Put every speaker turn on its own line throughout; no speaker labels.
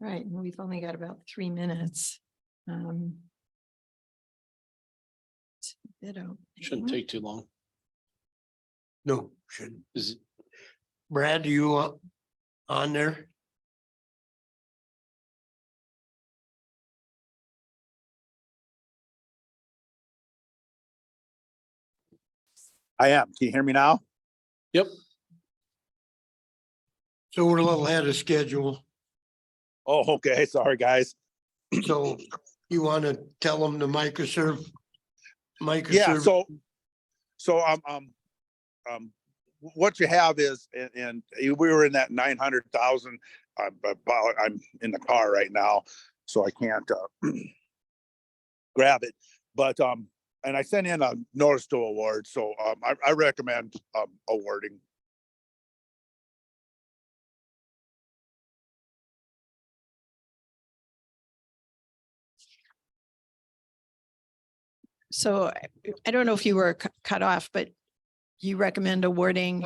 Right, and we've only got about three minutes. Um. it's a bit open.
Shouldn't take too long.
No, shouldn't.
Is it-
Brad, do you want on there?
I am. Can you hear me now?
So we're a little ahead of schedule.
Oh, okay. Sorry, guys.
So you want to tell them to microserve?
Yeah,
Microserve,
so, so, um, um, um, what you have is, and, and we were in that nine hundred thousand. I'm about, I'm in the car right now, so I can't, uh, grab it. But, um, and I sent in a notice to award, so, um, I, I recommend, um, awarding.
So I- I don't know if you were cu- cut off, but you recommend awarding,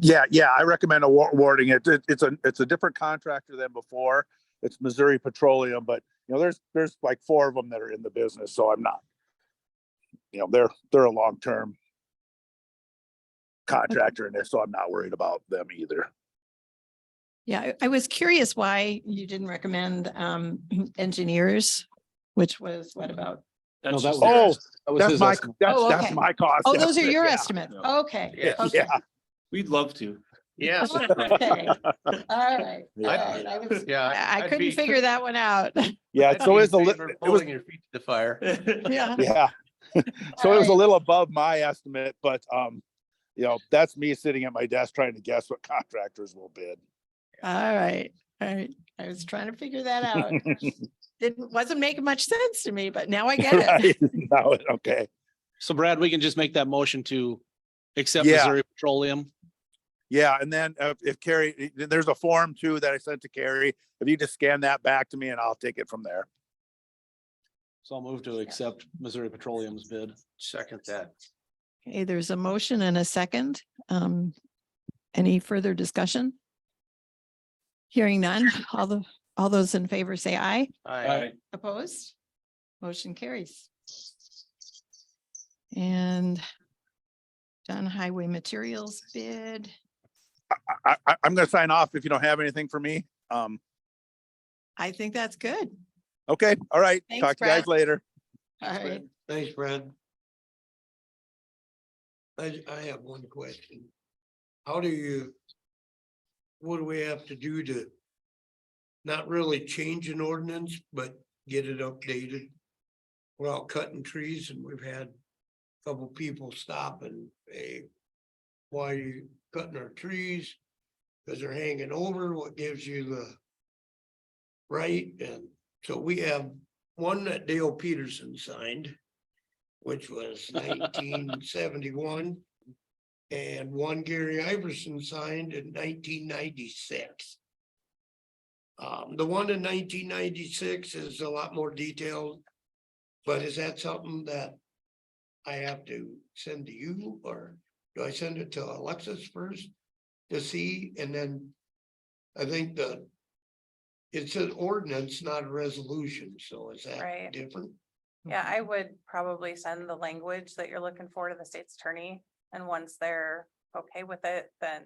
Yeah, yeah, I recommend awar- awarding it. It- It's a, it's a different contractor than before. It's Missouri Petroleum, but you know, there's, there's like four of them that are in the business, so I'm not. You know, they're, they're a long-term contractor in there, so I'm not worried about them either.
yeah, I- I was curious why you didn't recommend um engineers, which was what about?
No,
That's
that
just
was-
their estimate.
That
Oh,
was
That's
his
my,
estimate.
that's,
Oh,
that's
okay.
my cost.
Oh, those are
estimate,
your
yeah.
estimates.
Yeah.
Okay.
Yeah.
okay.
Yeah,
We'd love to.
Okay,
Yes.
All right. all right. I was-
Yeah.
I I
I'd
couldn't
be-
figure that one out.
yeah,
I'd
it's always
be
a
in
little,
favor of
it was,
Holding your feet to the fire.
Yeah.
yeah. So it was a
Alright.
little above my estimate, but, um, you know, that's me sitting at my desk trying to guess what contractors will bid.
All right, all right. I was trying to figure that out. Didn't, wasn't making much sense to me, but now I get it.
Right? No, okay.
So Brad, we can just make that motion to accept
Yeah.
Missouri Petroleum.
Yeah, and then uh, if Carrie, eh, there's a form too that I sent to Carrie. If you just scan that back to me and I'll take it from there.
So I'll move to accept Missouri Petroleum's bid.
Second that.
Okay, there's a motion and a second. Um, any further discussion? Hearing none, all the, all those in favor say aye.
Aye.
Opposed? Motion carries. And John Highway Materials bid.
I- I, I, I'm gonna sign off if you don't have anything for me. Um,
I think that's good.
okay, all right.
Thanks,
Talk to you guys
Brad.
later.
All right.
thanks, Brad. I, I have one question. How do you? What do we have to do to? Not really change an ordinance, but get it updated? We're out cutting trees and we've had a couple people stop and, hey, why are you cutting our trees? Cause they're hanging over, what gives you the? Right, and so we have one that Dale Peterson signed, which was nineteen seventy-one. And one Gary Iverson signed in nineteen ninety-six. Um, the one in nineteen ninety-six is a lot more detailed, but is that something that I have to send to you, or do I send it to Alexis first to see, and then I think the it's an ordinance, not a resolution, so is
Right.
that different?
Yeah, I would probably send the language that you're looking for to the state's attorney, and once they're okay with it, then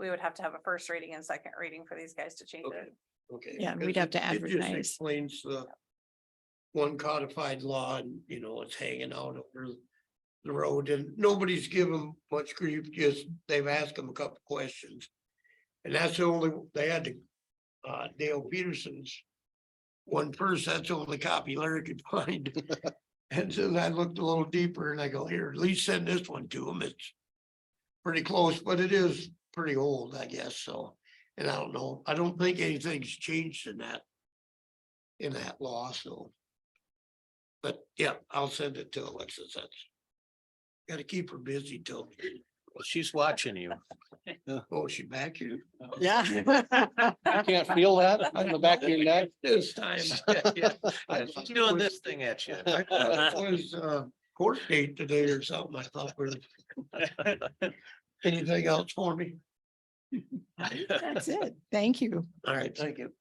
we would have to have a first reading and second reading for these guys to change
Okay.
it.
Okay.
Yeah,
because
we'd have
it-
to
it just
advertise.
Explains the one codified law and, you know, it's hanging out over the road and nobody's given much grief, just they've asked them a couple questions. And that's the only, they had to, uh, Dale Peterson's one first, that's the only copy Larry could find. And then I looked a little deeper and I go, here, at least send this one to him. It's pretty close, but it is pretty old, I guess, so. And I don't know, I don't think anything's changed in that. In that law, so. But yeah, I'll send it to Alexis. That's. Gotta keep her busy till,
She's watching you.
oh, she back here
Yeah.
I can't feel that on the back of your neck.
this time. yeah. I
She's Doing this thing at you.
I thought it Was uh court date today or something. I thought, was anything else for me?
That's it. Thank you.
All right, thank you.